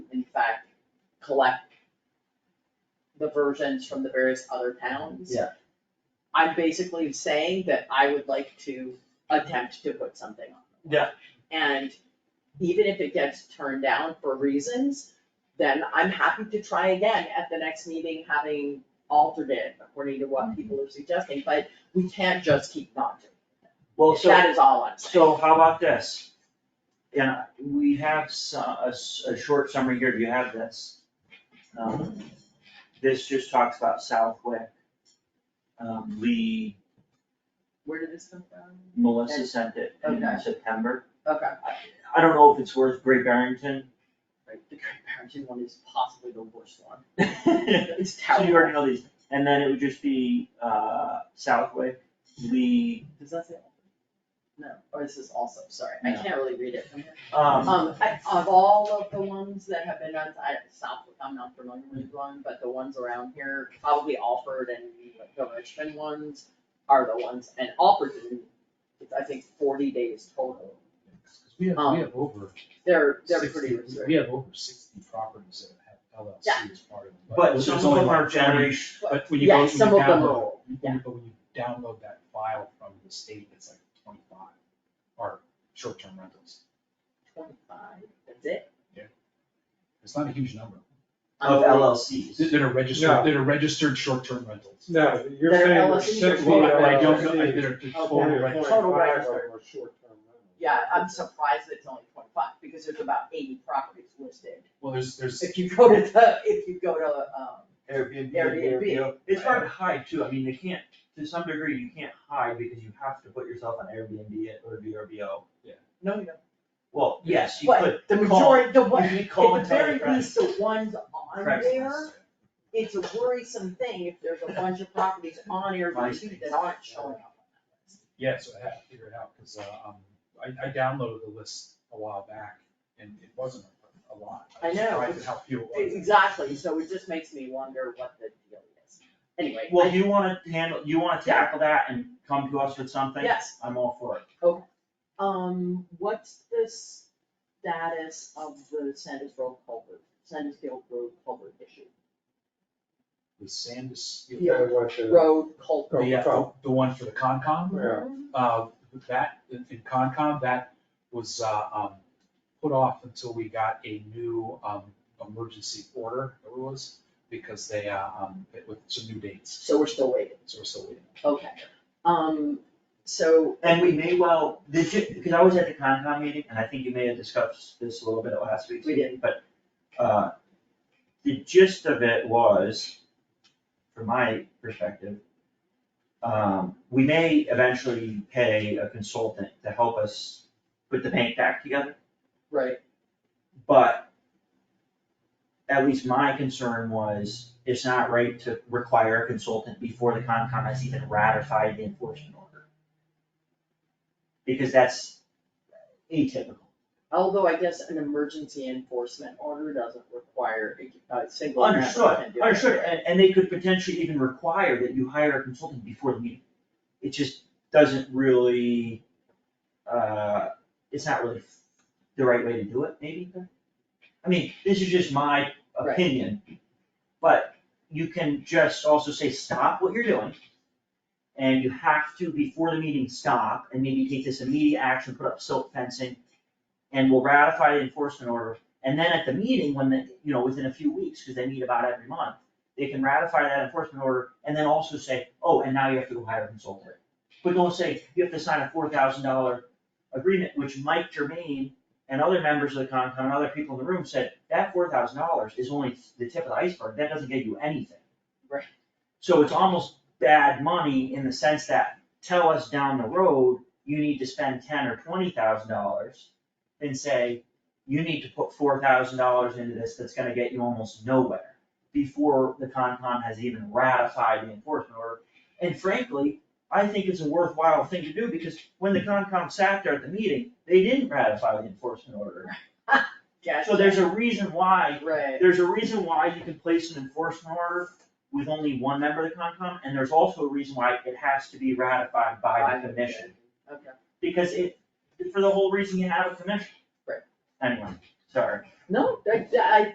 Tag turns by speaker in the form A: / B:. A: fact collect the versions from the various other towns.
B: Yeah.
A: I'm basically saying that I would like to attempt to put something on. the warrant. And even if it gets turned down for reasons, then I'm happy to try again at the next meeting, having altered it according to what people are suggesting, but we can't just keep not doing.
C: Well,
A: it.
C: so.
A: That is all I'm saying.
C: So how about this? Yeah, we have some, a, s- a short summary here, do you have this? Um, This just talks about Southwick. Um, Lee,
A: Where did this come from?
C: Melissa sent it in
A: Okay.
C: September.
A: Okay.
C: I don't know if it's worth Great Barrington.
A: Like, the Great Barrington one is possibly the worst one.
C: So
A: It's
C: you already
A: terrible.
C: know these, and then it would just be, uh, Southwick, Lee,
A: Does that say? No, or is this also, sorry, I
C: No.
A: can't really read it from here.
C: um,
A: Um, I, of all of the ones that have been done, I, Southwick, I'm not familiar with one, but the ones around here, probably Alford and the Richmond ones are the ones, and Alford's in, it's, I think, forty days total.
D: We have,
A: Um,
D: we have over.
A: They're, they're
D: 60
A: pretty
D: we-
A: restricted.
D: We have over sixty properties that have LLC as part of them.
C: but
D: there's
C: some of
D: only
C: them
D: like
C: are
D: 20.
C: generation.
D: But when you go,
A: Yeah,
D: when you
A: some of them
D: download,
A: are,
D: when
A: yeah.
D: you- but when you download that file from the state, it's like twenty-five are short-term rentals.
A: Twenty-five, that's it?
D: It's not a huge number.
A: Um,
D: Oh,
C: Of
D: They're-
C: LLCs.
D: They're registered,
E: No.
D: they're registered short-term rentals.
E: No, you're
A: They're
E: saying there's
A: LSEs or
E: sixty
A: Well,
D: Well, I- I don't know, I-
E: LSEs.
D: they're they're
A: Oh,
D: total
A: yeah.
D: rentals.
A: Total
E: 25
A: registered.
E: are short-term rentals.
A: Yeah, I'm surprised it's only twenty-five, because there's about eighty properties listed.
D: Well, there's, there's,
A: If you go to the, if you go to, um,
C: Airbnb.
A: Airbnb.
C: It's hard to hide too, I mean, they can't, to some degree, you can't hide because you have to put yourself on Airbnb or VRBO.
A: No, you don't.
C: Well, yes, you could,
A: But the
C: call-
A: majority, the one,
C: you
A: at
C: could call
A: the
C: and tell your
A: very
C: friends.
A: least, the ones on there,
C: Craigslist.
A: it's a worrisome thing if there's a bunch of properties on Airbnb that aren't showing up.
D: yeah, so I have to figure it out, because, um, I, I downloaded the list a while back, and it wasn't a lot. was
A: I know,
D: surprised
A: it's-
D: at How few it was.
A: Exactly, so it just makes me wonder what the deal is. Anyway,
C: Well,
A: I-
C: you wanna handle, you wanna tackle that and come to us with something?
A: yes,
C: I'm all for it.
A: um, what's the status of the Sandus Road culvert, Sandus Field Road culvert issue?
D: The Sandus,
E: You guys want to-
A: Road culvert.
E: Oh,
D: the, uh,
E: oh,
D: the one for the Concom,
E: yeah.
D: uh, that, in in Concom, that was, uh, um, put off until we got a new, um, emergency order, it was, because they, uh, um, it- with some new dates,
A: So we're still waiting,
D: so we're still waiting.
A: okay. Um, so
C: And we may well, did you, because I was at the Concom meeting, and I think you may have discussed this a little bit at last week's
A: We
C: meeting, but, uh, the gist of it was, from my perspective, um, we may eventually pay a consultant to help us put the paint back together.
A: Right,
C: But at least my concern was, it's not right to require a consultant before the Concom has even ratified the enforcement order. Because that's atypical.
A: although I guess an emergency enforcement order doesn't require a a single member can do it.
C: Understood, understood, and, and they could potentially even require that you hire a consultant before the meeting. It just doesn't really, uh, it's not really the right way to do it, maybe. I mean, this is just my
A: Right.
C: opinion, but you can just also say, stop what you're doing. And you have to, before the meeting, stop and maybe take this immediate action, put up silt fencing, and we'll ratify the enforcement order and then at the meeting, when the, you know, within a few weeks, because they meet about every month, they can ratify that enforcement order and then also say, oh, and now you have to go hire a consultant. But don't say, you have to sign a four thousand dollar agreement, which Mike Germain and other members of the Concom and other people in the room said, that four thousand dollars is only the tip of the iceberg, that doesn't get you anything.
A: Right.
C: So it's almost bad money in the sense that, tell us down the road, you need to spend ten or twenty thousand dollars, and say, you need to put four thousand dollars into this that's gonna get you almost nowhere before the Concom has even ratified the enforcement order. And frankly, I think it's a worthwhile thing to do because when the Concom sat there at the meeting, they didn't ratify the enforcement order.
A: Gotcha.
C: So there's a reason why,
A: Right,
C: there's a reason why you can place an enforcement order with only one member of the Concom, and there's also a reason why it has to be ratified by the commission.
A: okay.
C: Because it, for the whole reason you have a commission.
A: Right.
C: Anyway, sorry.
A: No, I, I